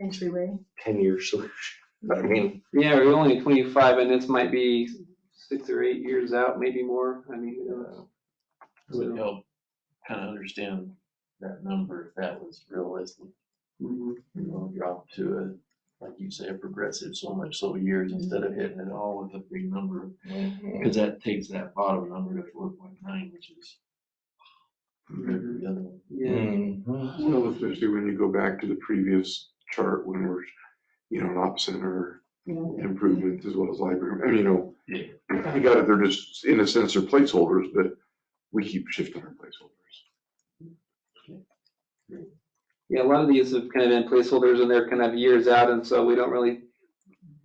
entryway. ten-year solution. I mean, Yeah, we're only twenty-five and this might be six or eight years out, maybe more. I mean, who knows? would help kind of understand that number, if that was realistic. Mhm. You know, drop to a, like you say, a progressive so much so years Mm-hmm. instead of hitting it all with a big number. Mm-hmm. Cause that takes that bottom number to four point nine, which is compared Mm-hmm. to the other one. Yeah, Well, especially when you go back to the previous chart when we're, you know, an op center Yeah. improvements as well as library, I mean, you know. Yeah. I got it, they're just, in a sense, they're placeholders, but we keep shifting our placeholders. yeah, a lot of these have kind of been placeholders and they're kind of years out and so we don't really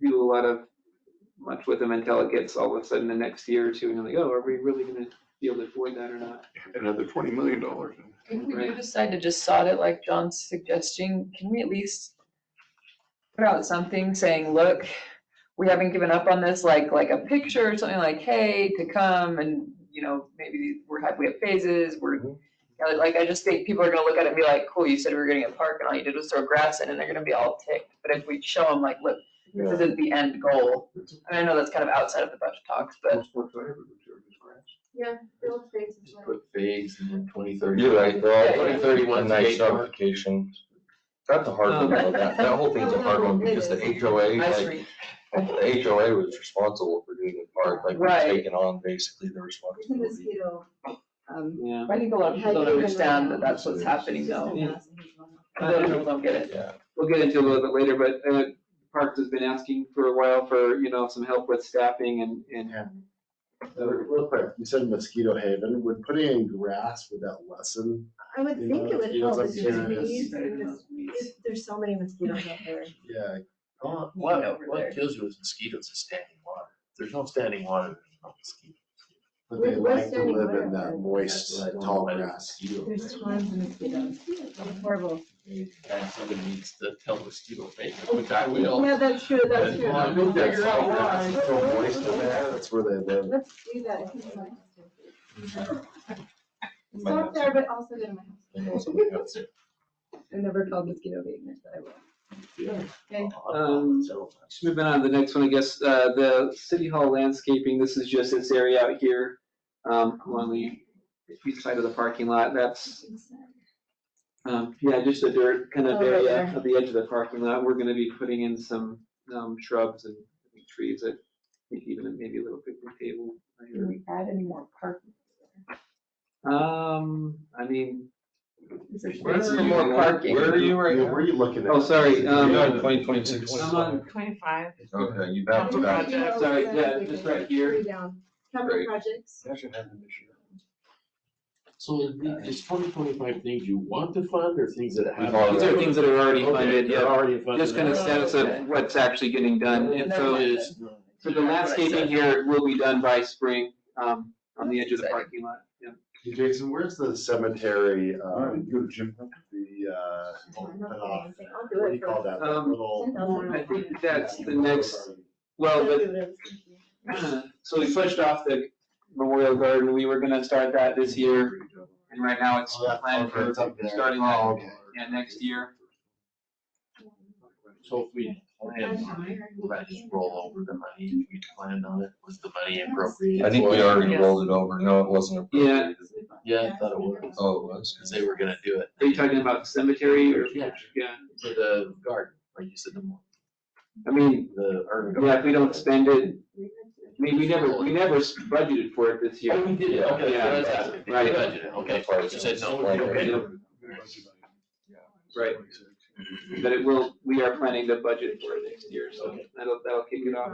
do a lot of much with them until it gets all of a sudden the next year or two and you're like, oh, are we really gonna be able to avoid that or not? Another twenty million dollars. If we do Right. decide to just sod it like John's suggesting, can we at least put out something saying, look, we haven't given up on this, like, like a picture or something like, hey, to come and, you know, maybe we're happy we have phases, we're, Yeah, like, I just think people are gonna look at it and be like, cool, you said we were getting a park and all you did was throw grass in and they're gonna be all ticked. But if we show them like, look, this isn't the end goal, and I know that's kind of outside of the budget talks, but Field space is Just like- put fades and then twenty, thirty. you're right, well, Yeah, twenty yeah. thirty-one, nice Skate park. stratification. That's a hard one, though. that, that whole thing's a hard one, because the HOA, ice like, rink, the HOA was responsible for doing the park, like, we're Right. taking on basically the It's a responsibility. mosquito. um, Yeah. I think a lot of people don't understand that that's what's it's happening just though. a mass and it's one- A lot of people don't get it. Yeah. we'll get into a little bit later, but uh, Parks has been asking for a while for, you know, some help with staffing and, and Real quick, you said mosquito haven, would putting in grass, would that lessen? I would You think know, it would you know, help, it's it's just like weeds, curious. and just weeds. there's so many mosquitoes out there. Yeah. What, Mean what over there. what kills you with mosquitoes is standing water. If There's no standing water, there's no mosquitoes. But they With like to Western live in wear, that That's moist, what I don't tall like grass. mosquito There's thing. tons of mosquitoes, It's horrible. And somebody needs to tell mosquito face, which I will. Yeah, that's true, that's Well, I true. think that's Figure out all why. grass. So moist in there, that's where they live. Let's do that. Stop there, but also go to my house. You know, somebody else. I've never called mosquito abatement, but I will. Okay. Um, Just moving on to the next one, I guess, uh, the city hall landscaping, this is just this area out here, um, along the east side of the parking lot, that's, um, yeah, just a dirt kind Oh, of right area there. at the edge of the parking lot, we're gonna be putting in some, um, shrubs and trees that, I think even maybe a little picnic table. right here. Can we add any more parking? Um, I mean, Is there Where space are for you more at? parking? Where are you right now? Where are you looking at? oh, sorry, You're um, on twenty twenty-six. I'm on, Twenty-five. Okay, you bounced Capital back. project. Sorry, yeah, just right here. Three down. Capital Right. projects, That should happen this year. So it's twenty twenty-five things you want to fund or things that have? already- these are things that are already funded, Okay, Oh, they're yeah, already funded. just kind of status of what's actually getting done, and so. Never mind. It's- So the landscaping here will be done by spring, um, on the edge of the parking lot, yeah. Jason, where's the cemetery, um, Jim. the, uh, I'm not uh, saying anything. I'll do what it do you for call that, that Um, little? Ten thousand. I think that's the next, I'll well, do but, what I was thinking. so we pushed off the Memorial Garden, we were gonna start that this year, and right now it's Oh, that- planned okay, for it's up there. starting Oh, that, okay. yeah, next year. So if we plan on it, will that just roll over the money, we planned on it, was the money appropriate? I think we already rolled it over. No, it wasn't appropriated. Yeah, I thought it was, Oh, it was. cause they were gonna do it. Are you talking about cemetery or? Yeah. Yeah, For the garden, like you said, the, mo- I mean, the urban. garden. yeah, if we don't spend it, I mean, we never, we never budgeted for it this year. Oh, we did, it. okay, Yeah. that's what I was asking. Right. Budgeted, Okay, you said no. Like, okay. Right. But it will, we are planning to budget for it next year, so that'll, that'll kick it off.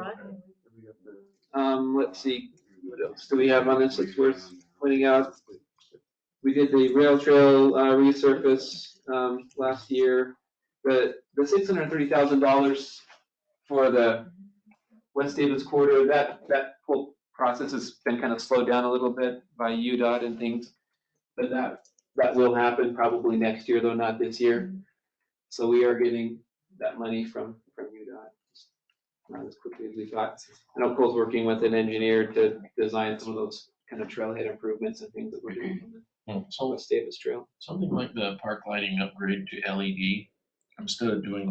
Um, let's see, what else do we have on this that's worth pointing out? We did the rail trail, uh, resurface, um, last year. The, the six hundred and thirty thousand dollars for the West Davis corridor, that, that whole process has been kind of slowed down a little bit by UDOT and things. But that, that will happen probably next year, though not this year. So we are getting that money from, from UDOT. Not as quickly as we thought. I know Cole's working with an engineer to design some of those kind of trailhead improvements and things that we're doing on the West Davis Trail. Something like the park lighting upgrade to LED, E instead of doing